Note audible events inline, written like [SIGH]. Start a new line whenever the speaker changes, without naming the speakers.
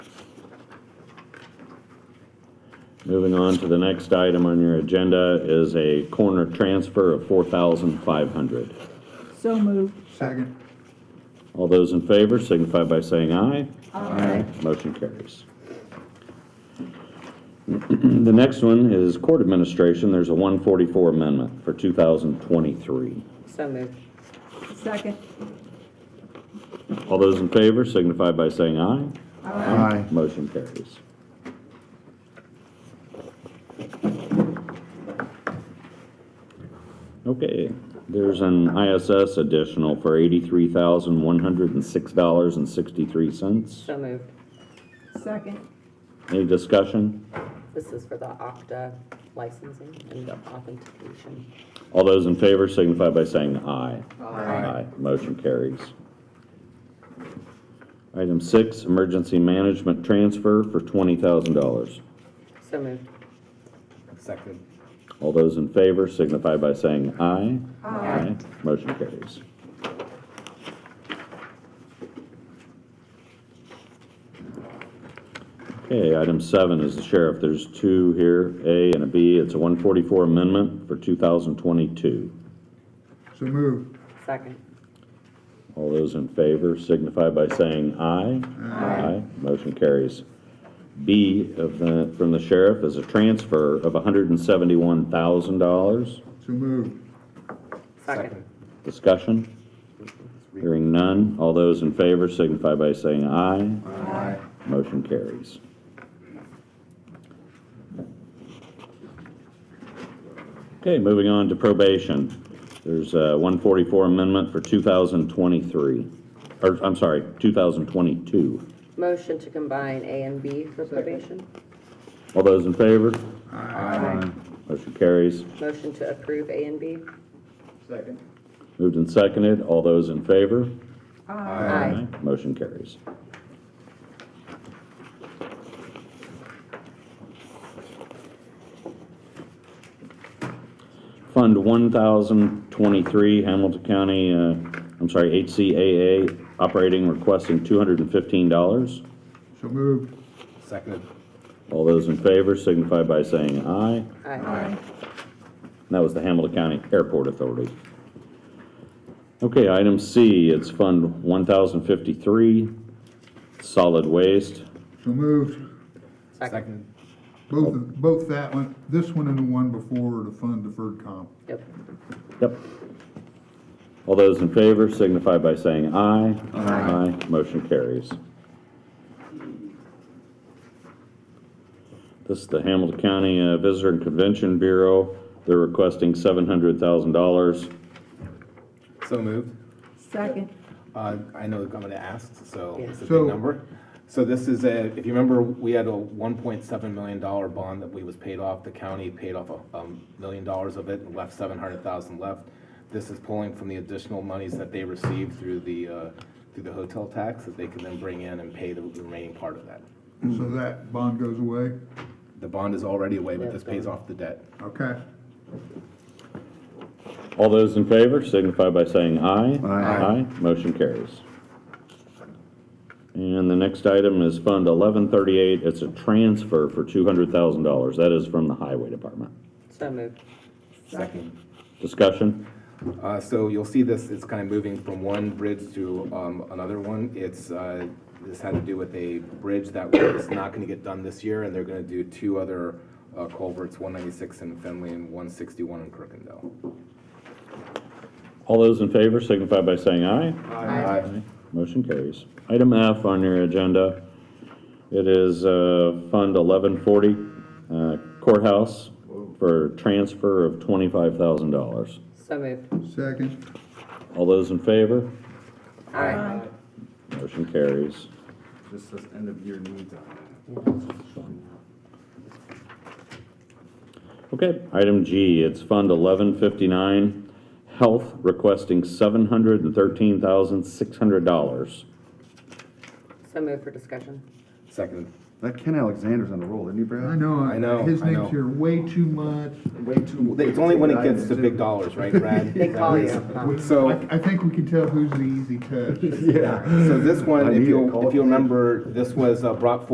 Moving on to the next item on your agenda is a corner transfer of four thousand five hundred.
So moved.
Second.
All those in favor signify by saying aye.
Aye.
Motion carries. [CLEARS THROAT] The next one is court administration. There's a one forty-four amendment for two thousand twenty-three.
So moved.
Second.
All those in favor signify by saying aye.
Aye.
Motion carries. Okay, there's an ISS additional for eighty-three thousand, one hundred and six dollars and sixty-three cents.
So moved.
Second.
Any discussion?
This is for the Okta licensing and the authentication.
All those in favor signify by saying aye.
Aye.
Motion carries. Item six, emergency management transfer for twenty thousand dollars.
So moved.
Second.
All those in favor signify by saying aye. Aye. Motion carries. Okay, item seven is the sheriff. There's two here, A and a B. It's a 144 amendment for 2022.
So moved.
Second.
All those in favor signify by saying aye. Aye. Motion carries. B of the, from the sheriff is a transfer of $171,000.
So moved.
Second.
Discussion? Hearing none. All those in favor signify by saying aye.
Aye.
Motion carries. Okay, moving on to probation. There's a 144 amendment for 2023, or, I'm sorry, 2022.
Motion to combine A and B for probation.
All those in favor?
Aye.
Motion carries.
Motion to approve A and B.
Second.
Moved and seconded. All those in favor?
Aye.
Motion carries. Fund 1023, Hamilton County, uh, I'm sorry, HCAA, operating requesting $215.
So moved.
Seconded.
All those in favor signify by saying aye.
Aye.
And That was the Hamilton County Airport Authority. Okay, item C, it's Fund 1053, Solid Waste.
So moved.
Second.
Both, of- both that one, this one and the one before were to fund deferred comp.
Yep.
Yep. All those in favor signify by saying aye. Aye. Motion carries. This is the Hamilton County uh, Visitor and Convention Bureau. They're requesting $700,000.
So moved.
Second.
Uh, I know I'm gonna ask, so
Yeah.
it's a
So-
big number. So this is a, if you remember, we had a one point seven million dollar bond that we was paid off. The county paid off a um, million dollars of it and left seven hundred thousand left. This is pulling from the additional monies that they received through the, uh, through the hotel tax that they can then bring in and pay the remaining part of that.
So that bond goes away?
The bond is already away, but this pays off the debt.
Okay.
All those in favor signify by saying aye.
Aye.
Motion carries. And the next item is Fund 1138. It's a transfer for $200,000. That is from the Highway Department.
So moved.
Second.
Discussion?
Uh, so you'll see this, it's kind of moving from one bridge to, um, another one. It's, uh, this had to do with a bridge that was not gonna get done this year, and they're gonna do two other uh, culverts, one ninety-six in Finley and one sixty-one in Crookendale.
All those in favor signify by saying aye.
Aye.
Motion carries. Item F on your agenda, it is uh, Fund 1140 uh, Courthouse for transfer of $25,000.
So moved.
Second.
All those in favor?
Aye.
Motion carries.
This says end of year needs on it.
Okay, item G, it's Fund 1159, Health requesting $713,600.
So moved for discussion.
Second.
That Ken Alexander's on a roll, isn't he,
I
Brad?
know.
I know,
His
I know.
name's here way too much.
Way too.
It's only when it gets to big dollars, right, Brad?
They call you. huh?
So.
I, I think we can tell who's the easy touch.
Yeah. So this
I
one,
need
if
a
you'll,
call.
if you remember, this was uh, brought forward